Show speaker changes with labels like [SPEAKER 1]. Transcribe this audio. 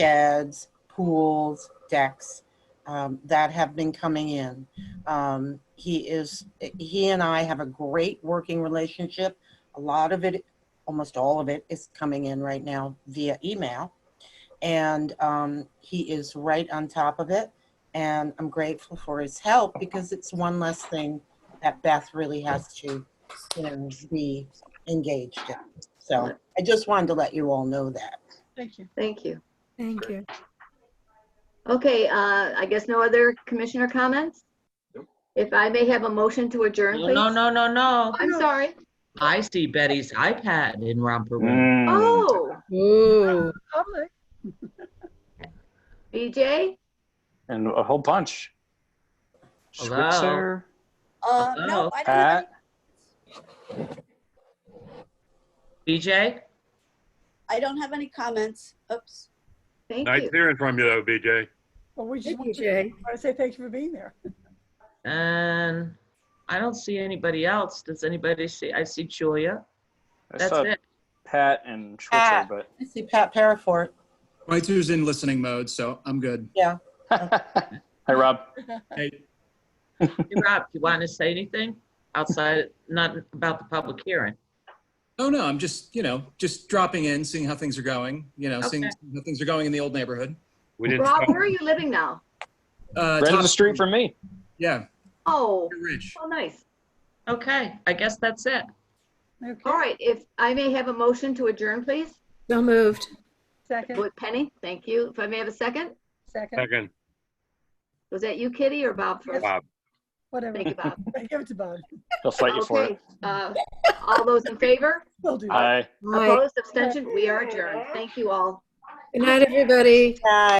[SPEAKER 1] sheds, pools, decks um, that have been coming in. Um, he is, he and I have a great working relationship. A lot of it, almost all of it, is coming in right now via email. And um, he is right on top of it. And I'm grateful for his help because it's one less thing that Beth really has to, you know, be engaged in. So I just wanted to let you all know that.
[SPEAKER 2] Thank you.
[SPEAKER 3] Thank you.
[SPEAKER 4] Thank you.
[SPEAKER 3] Okay, uh, I guess no other commissioner comments?
[SPEAKER 5] Nope.
[SPEAKER 3] If I may have a motion to adjourn,
[SPEAKER 6] No,
[SPEAKER 3] please?
[SPEAKER 6] no, no, no, no.
[SPEAKER 3] I'm sorry.
[SPEAKER 6] I see Betty's iPad in romper room.
[SPEAKER 5] Mm.
[SPEAKER 3] Oh,
[SPEAKER 4] Ooh.
[SPEAKER 2] Public.
[SPEAKER 3] BJ?
[SPEAKER 5] And a whole bunch.
[SPEAKER 6] Hello.
[SPEAKER 5] Switzer,
[SPEAKER 7] Uh,
[SPEAKER 6] Hello?
[SPEAKER 7] no, I don't have any,
[SPEAKER 5] Pat,
[SPEAKER 6] BJ?
[SPEAKER 7] I don't have any comments. Oops.
[SPEAKER 3] Thank
[SPEAKER 8] Nice
[SPEAKER 3] you.
[SPEAKER 8] hearing from you though, BJ.
[SPEAKER 2] Well, we just
[SPEAKER 4] Thank
[SPEAKER 2] want
[SPEAKER 4] you,
[SPEAKER 2] to
[SPEAKER 4] Jay.
[SPEAKER 2] want to say thank you for being there.
[SPEAKER 6] And I don't see anybody else. Does anybody see? I see Julia.
[SPEAKER 5] I
[SPEAKER 6] That's
[SPEAKER 5] saw
[SPEAKER 6] it.
[SPEAKER 5] Pat and Schwitzer,
[SPEAKER 1] Pat.
[SPEAKER 5] but.
[SPEAKER 1] I see Pat Parafort.
[SPEAKER 9] Schweitzer's in listening mode, so I'm good.
[SPEAKER 5] Hi, Rob.
[SPEAKER 9] Hey,
[SPEAKER 6] Hey, Rob, you want to say anything outside, not about the public hearing?
[SPEAKER 9] oh no, I'm just, you know, just dropping in, seeing how things are going, you know, seeing
[SPEAKER 6] Okay.
[SPEAKER 9] how things are going in the old neighborhood.
[SPEAKER 8] We didn't.
[SPEAKER 3] Rob,
[SPEAKER 8] stop.
[SPEAKER 3] where are you living now?
[SPEAKER 9] Uh,
[SPEAKER 5] Right up
[SPEAKER 9] top-
[SPEAKER 5] the street from me.
[SPEAKER 9] Yeah,
[SPEAKER 3] Oh,
[SPEAKER 9] you're rich.
[SPEAKER 3] oh, nice.
[SPEAKER 6] Okay, I guess that's it.
[SPEAKER 2] Okay.
[SPEAKER 3] All right, if I may have a motion to adjourn, please?
[SPEAKER 4] So moved.
[SPEAKER 2] Second,
[SPEAKER 3] With Penny, thank you. If I may have a second?
[SPEAKER 2] second,
[SPEAKER 8] Second,
[SPEAKER 3] Was that you, Kitty, or Bob first?
[SPEAKER 8] Bob.
[SPEAKER 2] whatever.
[SPEAKER 3] Thank you, Bob.
[SPEAKER 2] Give it to Bob.
[SPEAKER 5] He'll fight you for
[SPEAKER 3] Okay,
[SPEAKER 5] it.
[SPEAKER 3] uh, all those in favor?
[SPEAKER 2] We'll do that.
[SPEAKER 5] Aye.
[SPEAKER 4] All right.
[SPEAKER 3] Opposed, abstention, we are adjourned. Thank you all.
[SPEAKER 4] Good night, everybody.
[SPEAKER 1] Hi.